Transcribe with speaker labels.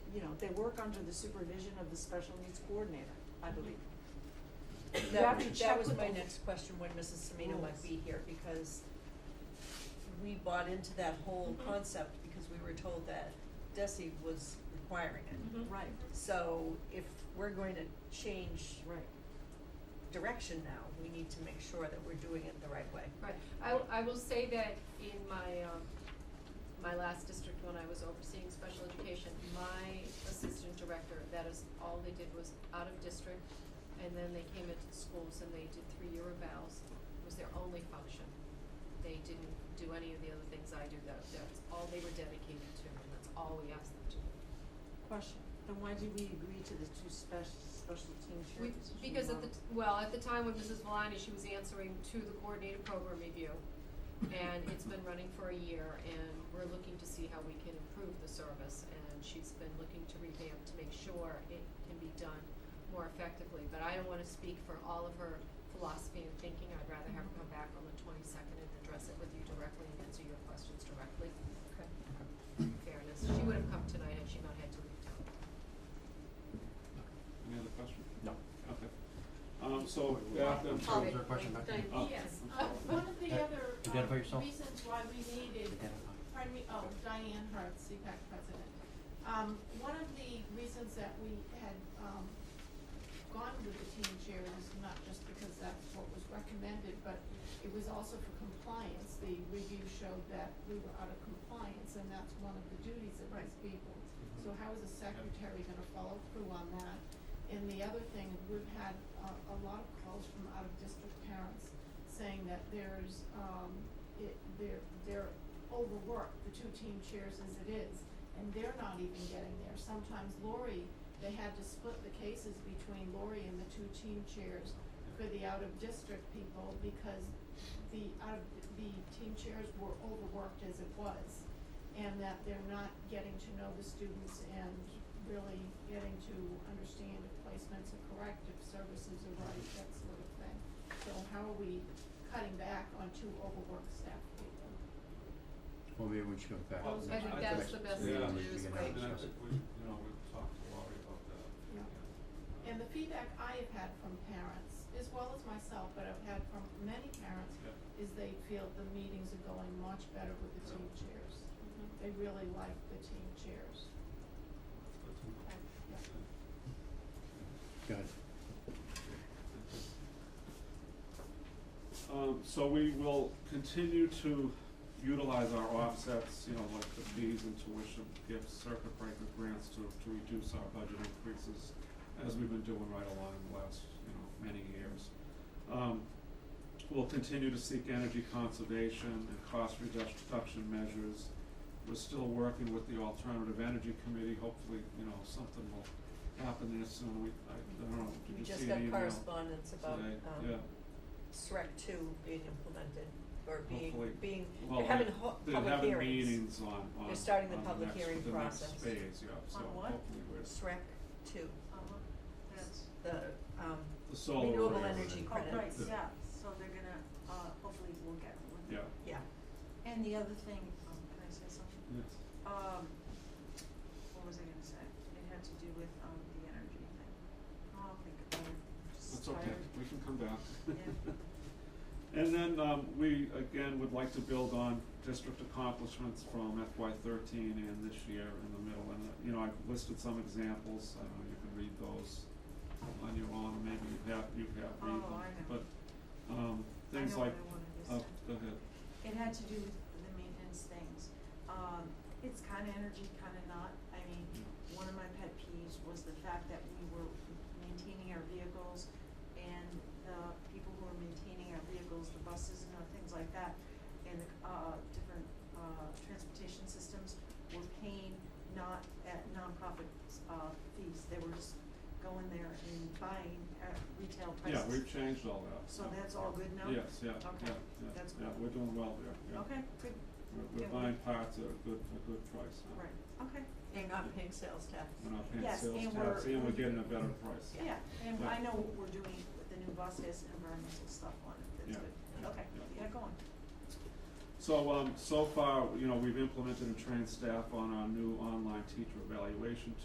Speaker 1: you know, they work under the supervision of the special needs coordinator, I believe. You have
Speaker 2: That,
Speaker 1: to
Speaker 2: that
Speaker 1: check
Speaker 2: was
Speaker 1: with
Speaker 2: my
Speaker 1: the-
Speaker 2: next question, when Mrs. Semino might
Speaker 1: Rules.
Speaker 2: be here, because we bought into that whole
Speaker 1: Mm-hmm.
Speaker 2: concept because we were told that Desi was requiring it.
Speaker 3: Mhm.
Speaker 1: Right,
Speaker 2: So if we're going to change
Speaker 1: right.
Speaker 2: direction now, we need to make sure that we're doing it the right way.
Speaker 3: Right, I, w- I will say that in my, um, my last district when I was overseeing special education, my assistant director, that is, all they did was out of district, and then they came into the schools and they did three-year evals, was their only function. They didn't do any of the other things I do, that, that's all they were dedicated to, and that's all we asked them to do.
Speaker 1: Question, then why did we agree to the two special, special team
Speaker 3: We,
Speaker 1: shirts?
Speaker 3: because at the, t- well, at the time when Mrs. Valani, she was answering to the coordinated program review. And it's been running for a year and we're looking to see how we can improve the service and she's been looking to revamp to make sure it can be done more effectively. But I don't wanna speak for all of her philosophy and thinking. I'd rather have her come back on the twenty-second and address it with you directly and answer your questions directly.
Speaker 2: Okay.
Speaker 3: In Fairness, she would have come tonight had she not had to leave town.
Speaker 4: Any other question?
Speaker 5: No.
Speaker 4: Okay. Um, so, after,
Speaker 6: I'm sorry, was there a question back there?
Speaker 4: Oh,
Speaker 7: Yes,
Speaker 4: I'm
Speaker 7: uh,
Speaker 4: sorry.
Speaker 7: one of the
Speaker 6: Uh,
Speaker 7: other
Speaker 6: identify
Speaker 7: um,
Speaker 6: yourself.
Speaker 7: reasons why we needed,
Speaker 6: Identify.
Speaker 7: pardon me, oh, Diane Hart, CPAC president. Um, one of the reasons that we had, um, gone with the team chair is not just because that's what was recommended, but it was also for compliance. The review showed that we were out of compliance, and that's one of the duties of these people. So how is a secretary gonna follow through on that? And the other thing, we've had a, a lot of calls from out-of-district parents saying that there's, um, it, they're, they're overworked, the two team chairs as it is, and they're not even getting there. Sometimes Lori, they had to split the cases between Lori and the two team chairs for the out-of-district people because the out of, the team chairs were overworked as it was. And that they're not getting to know the students and really getting to understand if placements are correct, if services are right, that sort of thing. So how are we cutting back on two overworked staff people?
Speaker 6: Well, maybe we should go back.
Speaker 4: Well,
Speaker 3: I think that's the best thing to
Speaker 4: Yeah.
Speaker 3: do is
Speaker 4: I
Speaker 6: Yeah.
Speaker 3: wait.
Speaker 4: mean, I think we, you know, we've talked to Laurie about that.
Speaker 7: Yeah. And the feedback I have had from parents, as well as myself, but I've had from many parents,
Speaker 4: Yeah.
Speaker 7: is they feel the meetings are going much better with the team chairs. They really like the team chairs.
Speaker 4: Good to know.
Speaker 6: Go
Speaker 7: Yeah.
Speaker 6: ahead.
Speaker 4: Um, so we will continue to utilize our offsets, you know, like the fees and tuition, give circuit breaker grants to, to reduce our budget increases, as we've been doing right along the last, you know, many years. Um, we'll continue to seek energy conservation and cost reduc- reduction measures. We're still working with the Alternative Energy Committee, hopefully, you know, something will happen there soon, we, I, I don't know,
Speaker 2: We
Speaker 4: did you
Speaker 2: just
Speaker 4: see the
Speaker 2: got
Speaker 4: email today?
Speaker 2: correspondence about,
Speaker 4: Yeah.
Speaker 2: um, SREC two being implemented, or
Speaker 4: Hopefully.
Speaker 2: being, being,
Speaker 4: Well,
Speaker 2: they're having
Speaker 4: they-
Speaker 2: ho-
Speaker 4: they're
Speaker 2: public
Speaker 4: having
Speaker 2: hearings,
Speaker 4: meetings on, on,
Speaker 2: They're starting the
Speaker 4: on
Speaker 2: public
Speaker 4: next-
Speaker 2: hearing
Speaker 4: the next
Speaker 2: process.
Speaker 4: phase, yeah, so
Speaker 1: On what?
Speaker 4: hopefully we're,
Speaker 2: SREC two,
Speaker 1: Uh-huh, that's,
Speaker 2: the, um,
Speaker 4: the solar.
Speaker 2: renewable
Speaker 4: arrays
Speaker 2: energy
Speaker 4: and-
Speaker 1: oh, right,
Speaker 2: credits,
Speaker 4: The-
Speaker 1: yeah, so they're gonna, uh, hopefully we'll get one.
Speaker 4: Yeah,
Speaker 2: yeah,
Speaker 1: And the other thing, um, can I say something?
Speaker 4: yes,
Speaker 1: Um, what was I gonna say? It had to do with, um, the energy thing. I'll think about it. I'm just
Speaker 4: that's okay,
Speaker 1: tired.
Speaker 4: we can come back.
Speaker 1: Yeah.
Speaker 4: And then, um, we, again, would like to build on district accomplishments from FY thirteen and this year in the middle, and, uh, you know, I've listed some examples, I don't know, you can read those on your own, maybe you have, you have read them,
Speaker 1: Oh, I know.
Speaker 4: but, um,
Speaker 1: I
Speaker 4: things
Speaker 1: know what
Speaker 4: like,
Speaker 1: I wanted to
Speaker 4: oh,
Speaker 1: say.
Speaker 4: go ahead,
Speaker 1: It had to do with the maintenance things. Um, it's kinda energy, kinda not. I mean, one of my pet peeves was the fact that we were maintaining our vehicles and the people who are maintaining our vehicles, the buses and other things like that, and the, uh, different, uh, transportation systems were paying not at nonprofit, uh, fees. They were just going there and buying at retail prices.
Speaker 4: yeah, we've changed all that.
Speaker 1: So
Speaker 4: yeah.
Speaker 1: that's all good now?
Speaker 4: Yes, yeah,
Speaker 1: Okay,
Speaker 4: yeah, yeah,
Speaker 1: that's
Speaker 4: yeah,
Speaker 1: good.
Speaker 4: we're doing well there, yeah.
Speaker 1: Okay, good,
Speaker 4: We're, we're
Speaker 1: Yeah, we-
Speaker 4: buying parts at a good, a good price now.
Speaker 1: right, okay.
Speaker 2: and not paying sales tax.
Speaker 4: We're not paying
Speaker 1: Yes,
Speaker 4: sales
Speaker 1: and
Speaker 4: tax,
Speaker 1: we're-
Speaker 4: and we're getting a better price.
Speaker 1: Yeah, and
Speaker 4: Yeah.
Speaker 1: I know what we're doing with the new bus has environmental stuff on it, that's
Speaker 4: Yeah,
Speaker 1: good.
Speaker 4: yeah,
Speaker 1: Okay,
Speaker 4: yeah.
Speaker 1: yeah, go on.
Speaker 4: So, um, so far, you know, we've implemented and trained staff on our new online teacher evaluation